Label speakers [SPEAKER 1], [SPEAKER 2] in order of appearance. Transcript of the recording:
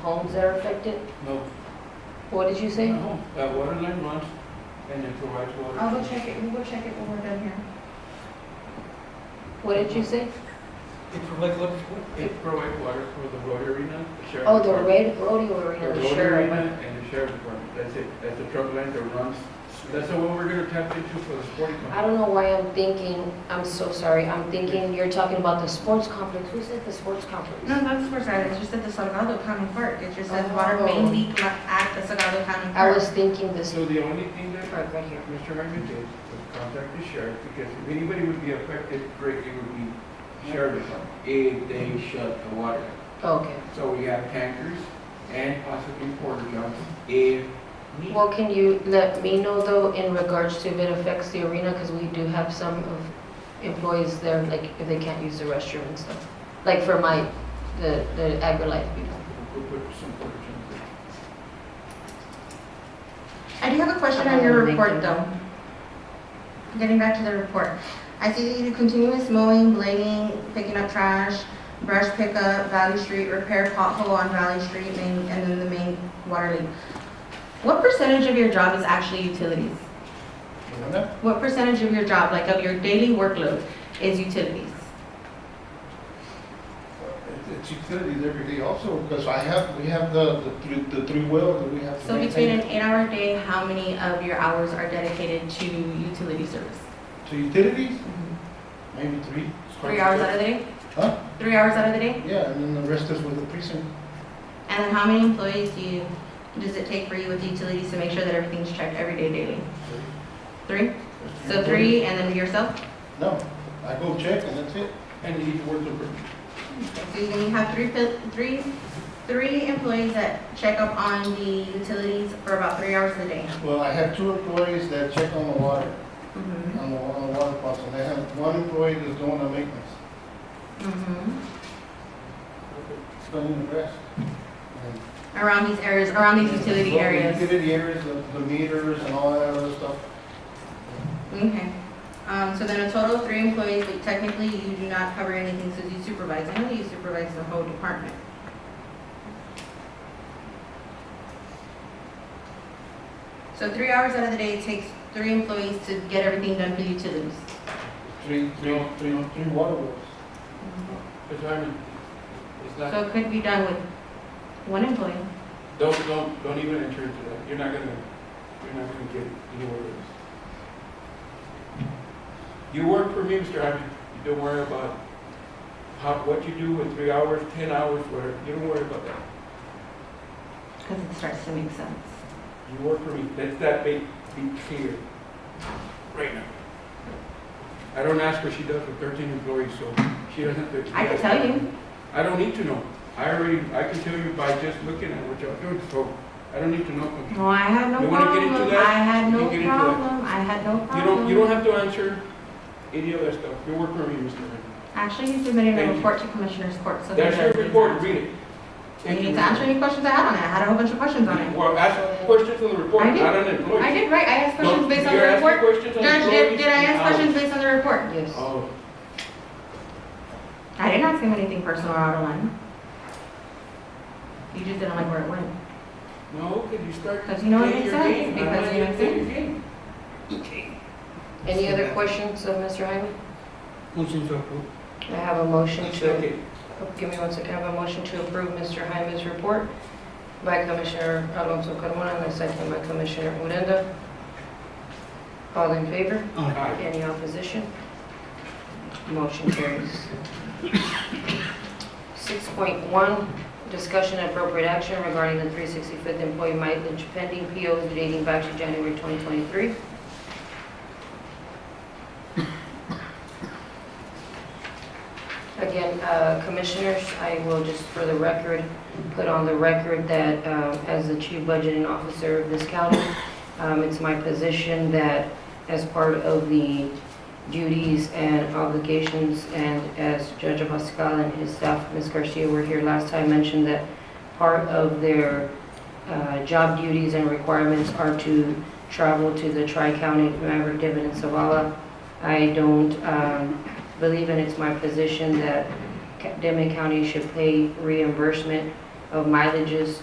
[SPEAKER 1] homes that are affected?
[SPEAKER 2] No,
[SPEAKER 1] What did you say?
[SPEAKER 2] no, that water line runs and it provides water.
[SPEAKER 3] I will check it, we will check it when we're done here.
[SPEAKER 1] What did you say?
[SPEAKER 4] It provides what, what- it,
[SPEAKER 2] It provides water for the road arena, the sheriff.
[SPEAKER 1] Oh, the
[SPEAKER 2] department.
[SPEAKER 1] red rodeo
[SPEAKER 2] The
[SPEAKER 1] arena, the
[SPEAKER 2] road
[SPEAKER 1] sheriff.
[SPEAKER 2] arena and the sheriff department, that's it, that's the truck line that runs, that's the one we're gonna tap into for the sporting
[SPEAKER 1] I
[SPEAKER 2] complex.
[SPEAKER 1] don't know why I'm thinking, I'm so sorry, I'm thinking you're talking about the sports complex. Who said the sports
[SPEAKER 3] No,
[SPEAKER 1] complex?
[SPEAKER 3] that's where it's just at the Salgado County Park, it just says water
[SPEAKER 1] Oh.
[SPEAKER 3] main leak li- at the Salgado County
[SPEAKER 1] I
[SPEAKER 3] Park.
[SPEAKER 1] was thinking this,
[SPEAKER 2] So the only thing that
[SPEAKER 1] Right, right here.
[SPEAKER 2] Mr. Hyman did was contact the sheriff, because if anybody would be affected, greatly would be sheriff department, if they shut the water. down.
[SPEAKER 1] okay.
[SPEAKER 2] So we have tankers and possibly porta johns if needed.
[SPEAKER 1] Well, can you let me know though in regards to if it affects the arena? Because we do have some of employees there, like if they can't use the restroom and stuff. Like for my, the, the agri-life people.
[SPEAKER 2] We'll put some porta johns there.
[SPEAKER 3] I do have a question on your report, though. Getting back to the report. I see that you do continuous mowing, blading, picking up trash, brush pickup, Valley Street, repair pothole on Valley Street, main, and then the main water leak. What percentage of your job is actually utilities? What percentage of your job, like of your daily workload, is utilities?
[SPEAKER 5] It's utilities every day also, because I have, we have the, the three, the three well that we have. to
[SPEAKER 3] So between
[SPEAKER 5] maintain.
[SPEAKER 3] an eight-hour day, how many of your hours are dedicated to utility service?
[SPEAKER 5] To utilities,
[SPEAKER 3] Mm-hmm.
[SPEAKER 5] maybe three.
[SPEAKER 3] Three hours out of the day?
[SPEAKER 5] Huh?
[SPEAKER 3] Three hours out of the day?
[SPEAKER 5] Yeah, and then the rest is with the precinct.
[SPEAKER 3] And then how many employees do you, does it take for you with the utilities to make sure that everything's checked every day daily? Three? So three and then yourself?
[SPEAKER 5] No, I go check and that's it.
[SPEAKER 2] And each work the,
[SPEAKER 3] So you can have three, fil- three, three employees that check up on the utilities for about three hours a day.
[SPEAKER 5] Well, I have two employees that check on the water,
[SPEAKER 3] Mm-hmm.
[SPEAKER 5] on the, on the water faucet. I have one employee that's doing the maintenance,
[SPEAKER 3] Mhm.
[SPEAKER 5] cleaning the rest. And
[SPEAKER 3] Around these areas, around these utility
[SPEAKER 5] Well, the
[SPEAKER 3] areas.
[SPEAKER 5] Utility areas, the- the meters and all that other stuff.
[SPEAKER 3] Okay. Um, so then a total of three employees, but technically you do not cover anything since you supervise. I know you supervise the whole department. So three hours out of the day it takes three employees to get everything done for utilities.
[SPEAKER 5] Three, three, three, three water wells.
[SPEAKER 2] it's, I mean, it's not,
[SPEAKER 3] So it could be done with one employee.
[SPEAKER 2] don't, don't, don't even enter into that, you're not gonna, you're not gonna get anywhere with this. You work for me, Mr. Hyman, you don't worry about how, what you do in three hours, ten hours, whatever, you don't worry about that.
[SPEAKER 3] Because it starts to make sense.
[SPEAKER 2] You work for me, let that be, be clear, right now. I don't ask what she does with thirteen employees, so she doesn't. have to-
[SPEAKER 3] I can tell you.
[SPEAKER 2] I don't need to know. I already, I can tell you by just looking at what y'all doing, so I don't need to know.
[SPEAKER 3] No, I had no
[SPEAKER 2] You wanna get into
[SPEAKER 3] problem.
[SPEAKER 2] that?
[SPEAKER 3] I had
[SPEAKER 2] You
[SPEAKER 3] no
[SPEAKER 2] get into that.
[SPEAKER 3] problem. I had no
[SPEAKER 2] You
[SPEAKER 3] problem.
[SPEAKER 2] don't, you don't have to answer any of that stuff. You work for me, Mr. Herman.
[SPEAKER 3] Actually, you submitted
[SPEAKER 2] Thank
[SPEAKER 3] a
[SPEAKER 2] you.
[SPEAKER 3] report to Commissioner's Court, so.
[SPEAKER 2] That's
[SPEAKER 3] there
[SPEAKER 2] your
[SPEAKER 3] it is.
[SPEAKER 2] report, read it.
[SPEAKER 3] You
[SPEAKER 2] Thank
[SPEAKER 3] need
[SPEAKER 2] you.
[SPEAKER 3] to answer any questions I had on it. I had a whole bunch of questions on it.
[SPEAKER 2] Well, ask questions on the report,
[SPEAKER 3] I did.
[SPEAKER 2] not on the employees.
[SPEAKER 3] I did, right, I asked
[SPEAKER 2] No,
[SPEAKER 3] questions based on the
[SPEAKER 2] you're asking
[SPEAKER 3] report.
[SPEAKER 2] questions on
[SPEAKER 3] Judge, did,
[SPEAKER 2] employees
[SPEAKER 3] did I
[SPEAKER 2] and
[SPEAKER 3] ask
[SPEAKER 2] hours.
[SPEAKER 3] questions based on the report?
[SPEAKER 1] Yes.
[SPEAKER 2] Oh,
[SPEAKER 3] I didn't ask him anything personal or out of line. You just didn't like where it went.
[SPEAKER 2] no, could you start?
[SPEAKER 3] Because you know what
[SPEAKER 2] playing
[SPEAKER 3] it
[SPEAKER 2] your
[SPEAKER 3] says,
[SPEAKER 2] game? I'm
[SPEAKER 3] because
[SPEAKER 2] not
[SPEAKER 3] you know what it
[SPEAKER 2] playing your game.
[SPEAKER 1] Any other questions of Mr. Hyman?
[SPEAKER 4] motion to approve.
[SPEAKER 1] I have a motion to, oh,
[SPEAKER 2] Second.
[SPEAKER 1] give me one second, I have a motion to approve Mr. Hyman's report by Commissioner Alonso Carmona and a second by Commissioner Odena. All in favor?
[SPEAKER 2] Aye.
[SPEAKER 1] Any opposition? Motion carries. 6.1, discussion and appropriate action regarding the 365th employee mileage pending POs dating back to January 2023. Again, uh, commissioners, I will just for the record, put on the record that um, as the chief budgeting officer of this county, um, it's my position that as part of the duties and obligations, and as Judge Abascal and his staff, Ms. Garcia, were here last time, mentioned that part of their uh, job duties and requirements are to travel to the Tri-County Maverick Divot and Savala. I don't um, believe, and it's my position, that Ca- Demet County should pay reimbursement of mileages